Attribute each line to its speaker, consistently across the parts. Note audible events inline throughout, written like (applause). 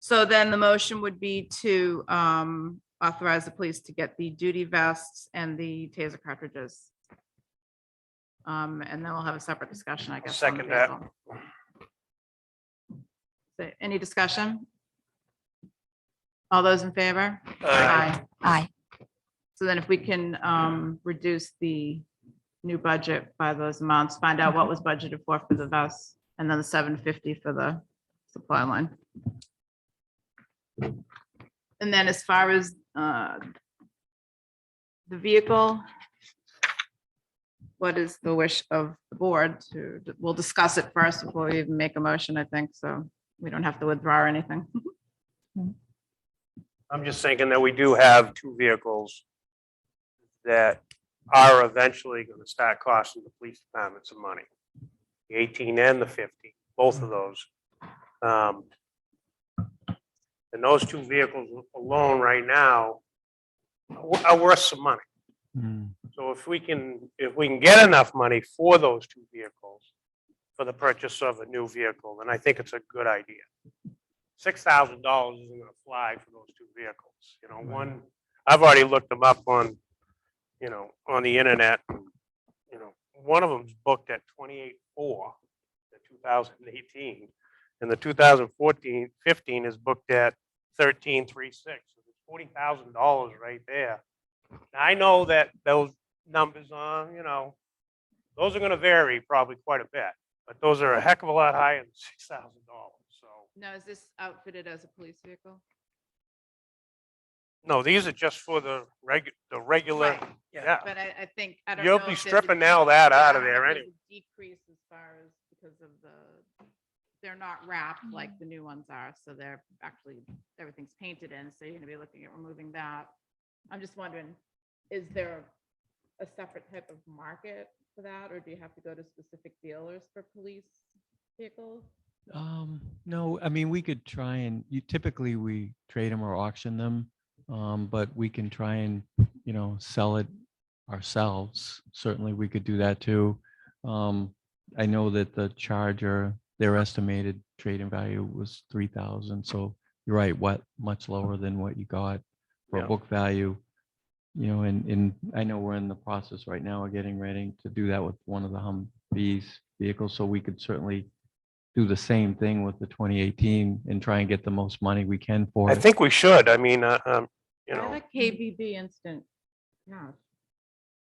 Speaker 1: So then the motion would be to um authorize the police to get the duty vests and the taser cartridges. Um, and then we'll have a separate discussion, I guess. on
Speaker 2: Second that.
Speaker 1: Basil. So, Any discussion? All those in favor?
Speaker 2: Uh,
Speaker 3: Aye.
Speaker 1: So then if we can um reduce the new budget by those amounts, find out what was budgeted for for the vests and then the seven fifty for the supply line. And then as far as uh the vehicle, what is the wish of the board to, we'll discuss it first before we even make a motion, I think, so we don't have to withdraw or anything.
Speaker 2: I'm just thinking that we do have two vehicles that are eventually going to start costing the police department some money. The 18 and the 50, both of those. Um, And those two vehicles alone right now are wo- are worth some money. So if we can, if we can get enough money for those two vehicles, for the purchase of a new vehicle, then I think it's a good idea. Six thousand dollars isn't gonna fly for those two vehicles, you know, one, I've already looked them up on, you know, on the internet. and, You know, one of them's booked at twenty-eight four, the two thousand and eighteen, and the 2014-15 is booked at thirteen three six. Forty thousand dollars right there. Now, I know that those numbers on, you know, those are gonna vary probably quite a bit, but those are a heck of a lot higher than six thousand dollars, so.
Speaker 1: Now, is this outfitted as a police vehicle?
Speaker 2: No, these are just for the reg, the regular,
Speaker 1: Right.
Speaker 2: yeah,
Speaker 1: But I, I think, I don't know.
Speaker 2: You'll
Speaker 1: if
Speaker 2: be
Speaker 1: there's a
Speaker 2: stripping all that
Speaker 1: decrease-
Speaker 2: out of
Speaker 1: I don't know
Speaker 2: there
Speaker 1: if there's a Decrease as far as because of the, they're not wrapped like the new ones are, so they're actually, everything's painted in, so you're gonna be looking at removing that. I'm just wondering, is there a separate type of market for that, or do you have to go to specific dealers for police vehicles?
Speaker 4: Um, no, I mean, we could try and, you typically we trade them or auction them. Um, but we can try and, you know, sell it ourselves. Certainly, we could do that too. Um, I know that the Charger, their estimated trading value was three thousand, so you're right, what, much lower than what you got for
Speaker 2: Yeah.
Speaker 4: a book value. You know, and, and I know we're in the process right now of getting ready to do that with one of the Humvees vehicles, so we could certainly do the same thing with the twenty eighteen and try and get the most money we can for
Speaker 2: I
Speaker 4: it.
Speaker 2: think we should, I mean, uh, um, you
Speaker 1: I
Speaker 2: know,
Speaker 1: like KBB instant cash.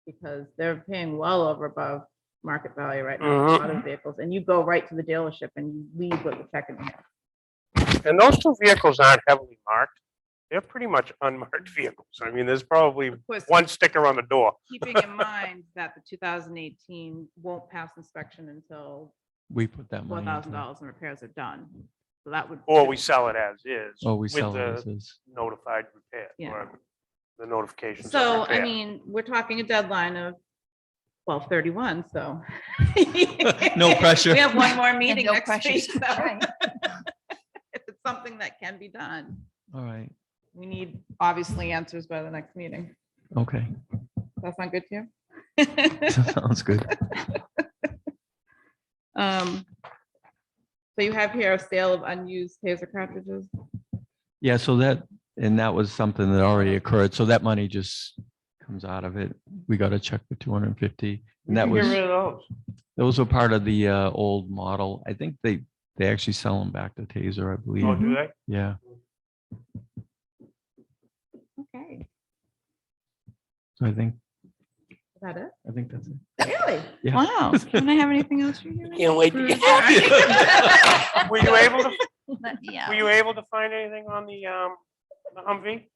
Speaker 1: Because they're paying well over above market value right now, for a lot
Speaker 2: Mm-hmm.
Speaker 1: of vehicles, and you go right to the dealership and you leave with a check in hand.
Speaker 2: and those two vehicles aren't heavily marked. They're pretty much unmarked (laughs) vehicles. I mean, there's probably
Speaker 1: Of course,
Speaker 2: one sticker on the door.
Speaker 1: keeping in mind that the two thousand eighteen won't pass inspection until
Speaker 4: We put that
Speaker 1: four
Speaker 4: money.
Speaker 1: thousand
Speaker 4: into it.
Speaker 1: dollars in repairs are done. So that would.
Speaker 2: Or we sell it as is.
Speaker 4: Oh, we
Speaker 2: with
Speaker 4: sell
Speaker 2: the
Speaker 4: it as is.
Speaker 2: Notified repair.
Speaker 1: Yeah.
Speaker 2: or The notifications. of
Speaker 1: So, I
Speaker 2: repair.
Speaker 1: mean, we're talking a deadline of twelve thirty-one, so.
Speaker 4: (laughs) No pressure.
Speaker 1: We have one more
Speaker 3: And
Speaker 1: meeting
Speaker 3: no
Speaker 1: next
Speaker 3: pressures.
Speaker 1: week. so-
Speaker 3: Right.
Speaker 1: (laughs) if it's something that can be done,
Speaker 4: All right,
Speaker 1: we need obviously answers by the next meeting.
Speaker 4: okay,
Speaker 2: (laughs)
Speaker 4: (laughs)
Speaker 1: That sound good to you? (laughs)
Speaker 4: sounds good.
Speaker 1: Um, So you have here a sale of unused taser cartridges.
Speaker 4: Yeah, so that, and that was something that already occurred, so that money just comes out of it. We got to check the two hundred and fifty.
Speaker 2: We
Speaker 4: And that
Speaker 2: can get
Speaker 4: was,
Speaker 2: rid of those.
Speaker 4: those were part of the uh, old model. I think they, they actually sell them back to Taser, I
Speaker 2: Oh,
Speaker 4: believe.
Speaker 2: do they?
Speaker 1: (laughs)
Speaker 4: Yeah,
Speaker 1: Okay.
Speaker 4: so I think,
Speaker 1: Is that it?
Speaker 4: I think that's it.
Speaker 1: Really?
Speaker 4: Yeah.
Speaker 1: Wow. Can I have anything else for you?
Speaker 5: Can't wait to get back.
Speaker 4: (laughs)
Speaker 2: Were you able to,
Speaker 3: But,
Speaker 2: were
Speaker 3: Yeah.
Speaker 2: you able to find anything on the, um, the Humvee?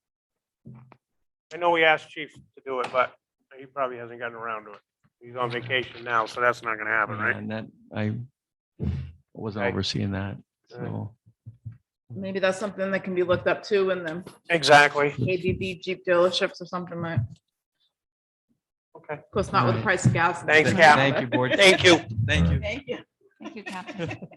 Speaker 2: I know we asked chief to do it, but he probably hasn't gotten around to it. He's on vacation now, so that's not gonna happen,
Speaker 4: Yeah,
Speaker 2: right?
Speaker 4: And that, I wasn't
Speaker 2: Okay.
Speaker 4: overseeing that,
Speaker 2: All right.
Speaker 4: so.
Speaker 1: (laughs) Maybe that's something that can be looked up too in the
Speaker 2: Exactly.
Speaker 1: ABB Jeep dealerships or something like.
Speaker 2: Okay.
Speaker 1: Of course, not with the
Speaker 4: Alright.
Speaker 1: price of gas.
Speaker 2: Thanks, Cap.
Speaker 4: Thank you, board.
Speaker 2: Thank you.
Speaker 4: Thank you.
Speaker 1: Thank you.
Speaker 3: Thank you, Catherine.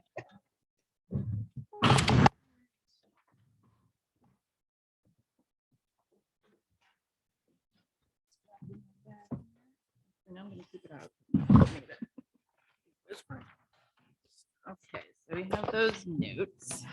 Speaker 1: And I'm gonna keep it out. Okay, so we have those notes.